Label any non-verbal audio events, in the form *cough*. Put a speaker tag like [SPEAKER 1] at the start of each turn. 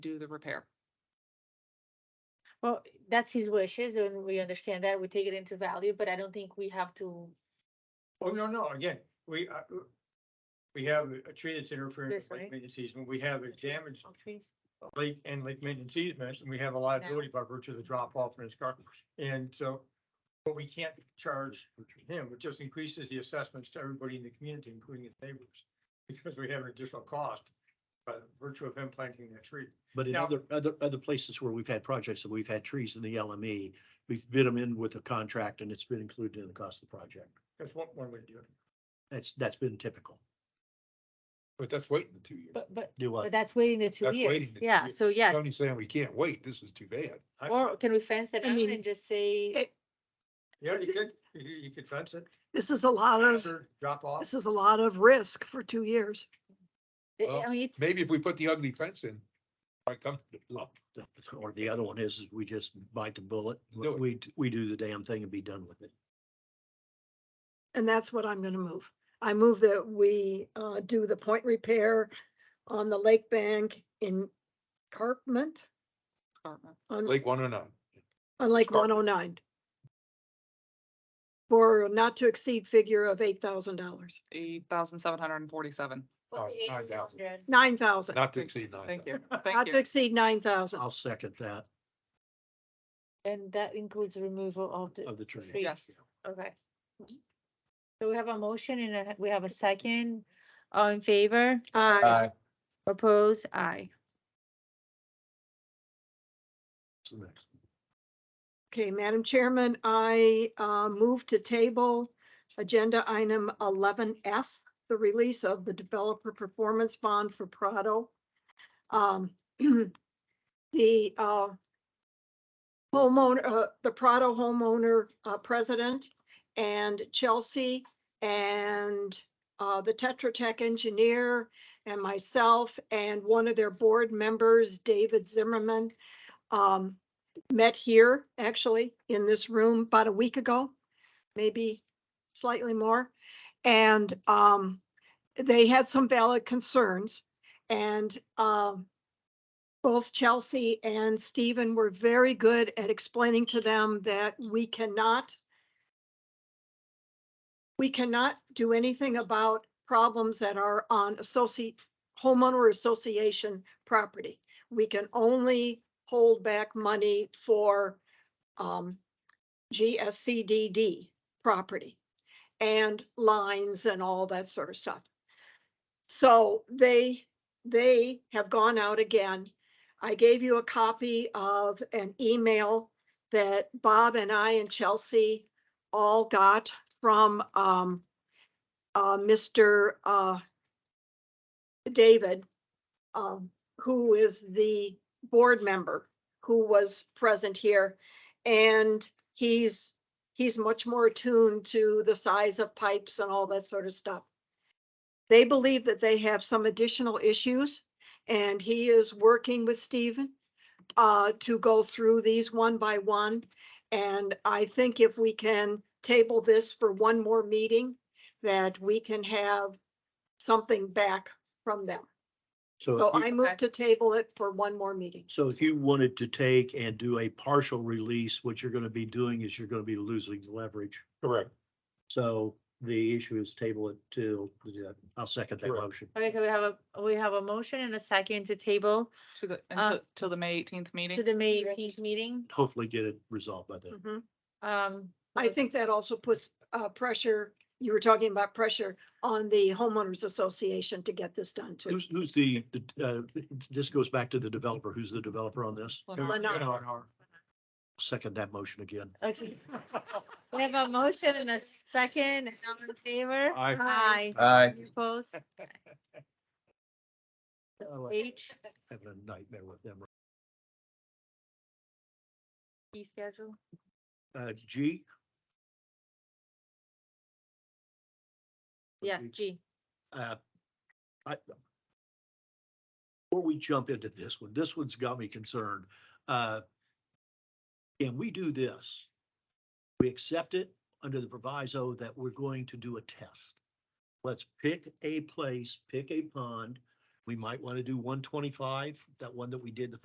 [SPEAKER 1] do the repair.
[SPEAKER 2] Well, that's his wishes and we understand that. We take it into value, but I don't think we have to,
[SPEAKER 3] Oh, no, no, again, we, uh, we have a tree that's interfering
[SPEAKER 2] This
[SPEAKER 3] with lake
[SPEAKER 2] way?
[SPEAKER 3] maintenance easement. We have a damaged
[SPEAKER 2] Oh, trees.
[SPEAKER 3] lake and lake maintenance easements, and we have a liability by virtue of the drop off in his car. And so, but we can't charge him. It just increases the assessments to everybody in the community, including his neighbors, because we have an additional cost by virtue of him planting that tree.
[SPEAKER 4] But in
[SPEAKER 3] Now-
[SPEAKER 4] other, other, other places where we've had projects and we've had trees in the LME, we've bid them in with a contract and it's been included in the cost of the project.
[SPEAKER 3] That's one, one way to do it.
[SPEAKER 4] That's, that's been typical.
[SPEAKER 5] But that's waiting the two years.
[SPEAKER 2] but, but,
[SPEAKER 4] Do
[SPEAKER 2] but
[SPEAKER 4] what?
[SPEAKER 2] that's waiting the two
[SPEAKER 5] That's
[SPEAKER 2] years.
[SPEAKER 5] waiting the two
[SPEAKER 2] Yeah,
[SPEAKER 5] years.
[SPEAKER 2] so yeah,
[SPEAKER 5] Tony's saying we can't wait. This is too bad.
[SPEAKER 3] I-
[SPEAKER 2] or can we fence it
[SPEAKER 6] I
[SPEAKER 2] out
[SPEAKER 6] mean,
[SPEAKER 2] and just say,
[SPEAKER 6] it-
[SPEAKER 3] Yeah, you could, you, you could fence it,
[SPEAKER 6] This is a lot of,
[SPEAKER 3] or drop off.
[SPEAKER 6] this is a lot of risk for two years.
[SPEAKER 2] I- I
[SPEAKER 5] well,
[SPEAKER 2] mean, it's,
[SPEAKER 5] Maybe if we put the ugly fence in, I come to the lump.
[SPEAKER 4] Or the other one is, is we just bite the bullet,
[SPEAKER 5] Do it.
[SPEAKER 4] we, we do the damn thing and be done with it.
[SPEAKER 6] And that's what I'm gonna move. I move that we uh do the point repair on the lake bank in Carpment
[SPEAKER 1] Department.
[SPEAKER 6] on,
[SPEAKER 5] Lake one oh nine.
[SPEAKER 6] on Lake one
[SPEAKER 5] Escarpment.
[SPEAKER 6] oh nine. For a not to exceed figure of eight thousand dollars,
[SPEAKER 1] Eight thousand seven hundred and forty-seven.
[SPEAKER 2] what's the
[SPEAKER 5] Nine- nine
[SPEAKER 2] age of
[SPEAKER 5] thousand.
[SPEAKER 2] children?
[SPEAKER 6] nine thousand,
[SPEAKER 5] Not to exceed nine.
[SPEAKER 1] Thank you.
[SPEAKER 2] *laughs*
[SPEAKER 6] not
[SPEAKER 1] Thank
[SPEAKER 6] to
[SPEAKER 1] you.
[SPEAKER 6] exceed nine thousand.
[SPEAKER 4] I'll second that
[SPEAKER 2] And that includes removal of the.
[SPEAKER 4] of the tree.
[SPEAKER 2] Free.
[SPEAKER 1] Yes.
[SPEAKER 2] Okay. So we have a motion and a- we have a second. All in favor?
[SPEAKER 5] Uh,
[SPEAKER 6] Aye.
[SPEAKER 2] Oppose? Aye.
[SPEAKER 4] That's the next one.
[SPEAKER 6] Okay, Madam Chairman, I uh move to table agenda item eleven F, the release of the developer performance bond for Prado. Um, *clears throat* the uh homeowner, uh, the Prado homeowner uh president and Chelsea and uh the Tetra Tech engineer and myself and one of their board members, David Zimmerman. Um, met here, actually, in this room about a week ago, maybe slightly more. And um, they had some valid concerns and um, both Chelsea and Stephen were very good at explaining to them that we cannot we cannot do anything about problems that are on associate homeowner association property we can only hold back money for um GSCDD property and lines and all that sort of stuff. So they, they have gone out again. I gave you a copy of an email that Bob and I and Chelsea all got from um uh Mr. uh David um who is the board member who was present here. And he's, he's much more attuned to the size of pipes and all that sort of stuff. They believe that they have some additional issues and he is working with Stephen uh, to go through these one by one. And I think if we can table this for one more meeting, that we can have something back from them.
[SPEAKER 4] So,
[SPEAKER 6] So
[SPEAKER 4] if you-
[SPEAKER 6] I move to table it for one more meeting.
[SPEAKER 4] so if you wanted to take and do a partial release, what you're going to be doing is you're going to be losing leverage.
[SPEAKER 5] Correct.
[SPEAKER 4] So the issue is table it till, the- I'll second that
[SPEAKER 5] Correct.
[SPEAKER 4] motion.
[SPEAKER 2] Okay, so we have a, we have a motion and a second to table
[SPEAKER 1] To the,
[SPEAKER 2] Uh,
[SPEAKER 1] until- till the May eighteenth
[SPEAKER 2] to
[SPEAKER 1] meeting.
[SPEAKER 2] the May eighteenth meeting.
[SPEAKER 4] Hopefully get it resolved by then.
[SPEAKER 6] Mhm.
[SPEAKER 2] Um,
[SPEAKER 6] I think that also puts uh pressure, you were talking about pressure on the homeowners association to get this done too.
[SPEAKER 4] Who's, who's the, the, uh, this goes back to the developer. Who's the developer on this?
[SPEAKER 6] Lennar.
[SPEAKER 3] Lennar.
[SPEAKER 4] Second that motion again.
[SPEAKER 2] okay. We have a motion and a second, and all in favor?
[SPEAKER 5] Aye.
[SPEAKER 2] Aye.
[SPEAKER 7] Aye.
[SPEAKER 2] Any Opposed?
[SPEAKER 4] Oh, I like
[SPEAKER 2] H,
[SPEAKER 4] Having a nightmare with them.
[SPEAKER 2] fee schedule.
[SPEAKER 4] Uh, G?
[SPEAKER 2] Yeah,
[SPEAKER 4] Okay.
[SPEAKER 2] G.
[SPEAKER 4] Uh, I, before we jump into this one, this one's got me concerned. Uh, Can we do this? We accept it under the proviso that we're going to do a test. Let's pick a place, pick a pond, We might want to do one twenty-five, that one that we did the